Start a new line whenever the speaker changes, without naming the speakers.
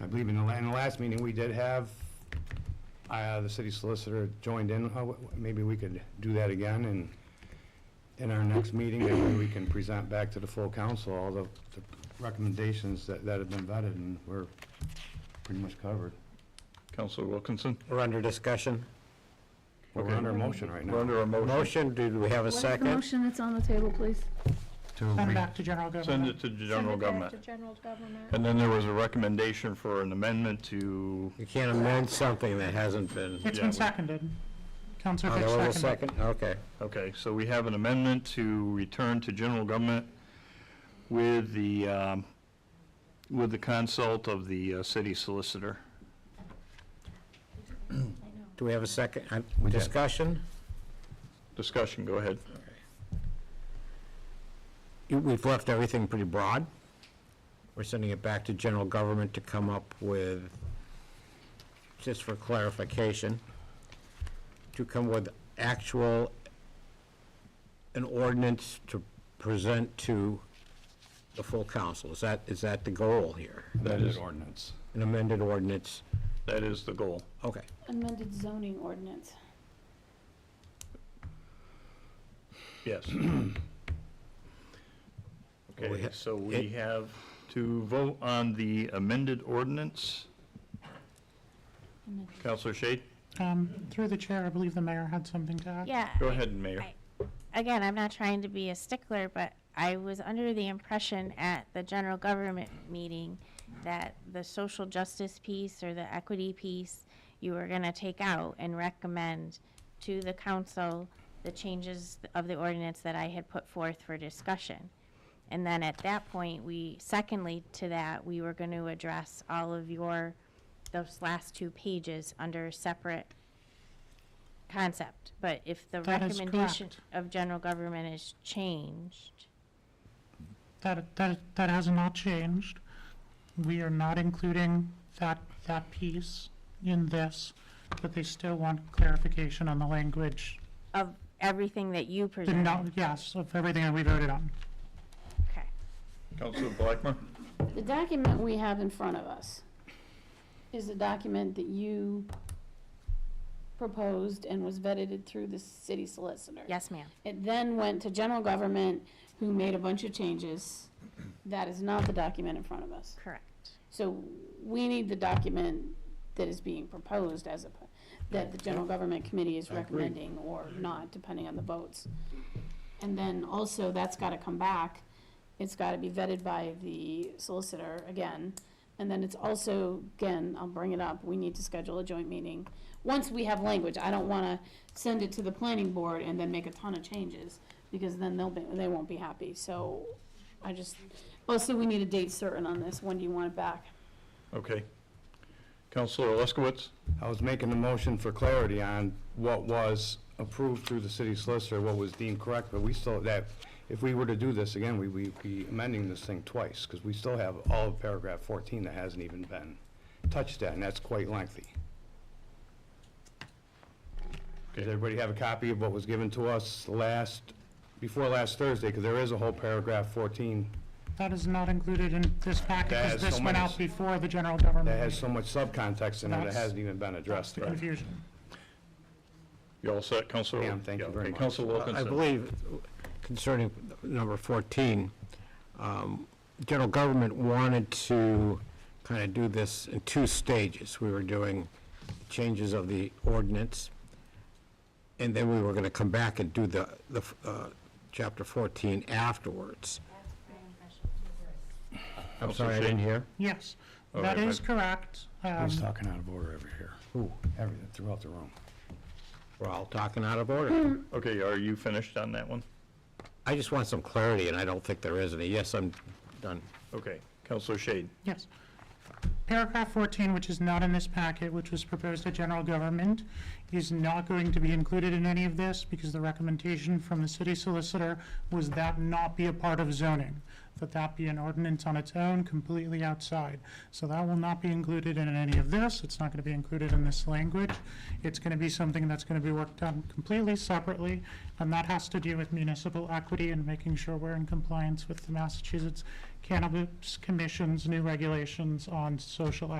I believe in the, la- in the last meeting, we did have, uh, the city solicitor joined in. How- Maybe we could do that again and in our next meeting, maybe we can present back to the full council all the the recommendations that, that have been vetted and we're pretty much covered.
Counselor Wilkinson?
We're under discussion.
We're
Okay.
under motion right
We're
now.
under a motion.
Motion, do we have a
What is the
second?
motion that's on the table, please?
To
Send
re-
it back to general
Send
government.
it to general
Send it back
government.
to general government.
And then there was a recommendation for an amendment to,
You can't amend something that hasn't been.
It's
Yeah.
been seconded. Counselor
Oh, there was
Fitch
a
seconded.
second, okay.
okay, so we have an amendment to return to general government with the, um, with the consult of the uh, city solicitor.
Do we have a second, uh,
We did.
discussion?
Discussion, go ahead.
You- We've left everything pretty broad. We're sending it back to general government to come up with, just for clarification, to come with actual, an ordinance to present to the full council. Is that, is that the goal here?
That
amended
is,
ordinance.
An amended ordinance?
that is the goal.
Okay.
Amended zoning ordinance.
Yes.
We
Okay,
ha-
so we have to vote on the amended ordinance.
Amended.
Counselor Shade,
Um, Through the chair, I believe the mayor had something to add.
Yeah.
go
I-
ahead, Mayor.
Again, I'm not trying to be a stickler, but I was under the impression at the general government meeting that the social justice piece or the equity piece, you were gonna take out and recommend to the council the changes of the ordinance that I had put forth for discussion. And then at that point, we, secondly to that, we were gonna address all of your, those last two pages under separate concept, but if the
That is
recommendation
correct.
of general government is changed,
That, that, that has not changed. We are not including that, that piece in this, but they still want clarification on the language.
of everything that you
The no,
presented.
yes, of everything that we voted on.
Okay.
Counselor Blackmer?
The document we have in front of us is the document that you proposed and was vetted through the city solicitor.
Yes, ma'am.
It then went to general government, who made a bunch of changes. That is not the document in front of us.
Correct.
So we need the document that is being proposed as a, that the general government committee is recommending or not, depending on the votes. And then also, that's gotta come back, it's gotta be vetted by the solicitor again. And then it's also, again, I'll bring it up, we need to schedule a joint meeting. Once we have language, I don't wanna send it to the planning board and then make a ton of changes, because then they'll be, they won't be happy, so I just, also, we need a date certain on this, when do you want it back?
Okay. Counselor Leskowitz?
I was making the motion for clarity on what was approved through the city solicitor, what was deemed correct, but we still, that, if we were to do this again, we, we'd be amending this thing twice, because we still have all of paragraph fourteen that hasn't even been touched at, and that's quite lengthy. Does everybody have a copy of what was given to us last, before last Thursday, because there is a whole paragraph fourteen
That is not included in this packet,
That
because
has
this
so
went
many-
out before the general government.
that has so much subcontext in it, that
That's-
hasn't even been
That's
addressed.
the confusion.
You all set, Counselor?
Yeah, thank you
Yeah,
very
okay,
much.
Counselor
Uh, I
Wilkinson?
believe concerning number 14, um, general government wanted to kind of do this in two stages. We were doing changes of the ordinance, and then we were going to come back and do the, the uh, chapter 14 afterwards. I'm
Counselor
sorry, I didn't
Shade?
hear.
Yes,
All
that
right,
is
but-
correct. Um,
Who's talking out of order over here? Who? Everything, throughout the room.
We're all talking out of order.
Okay, are you finished on that one?
I just want some clarity, and I don't think there is any. Yes, I'm done.
Okay, Counselor Shade?
Yes. Paragraph 14, which is not in this packet, which was proposed to general government, is not going to be included in any of this because the recommendation from the city solicitor was that not be a part of zoning, that that be an ordinance on its own, completely outside. So that will not be included in any of this. It's not going to be included in this language. It's going to be something that's going to be worked on completely separately, and that has to do with municipal equity and making sure we're in compliance with the Massachusetts Cannabis Commission's new regulations on social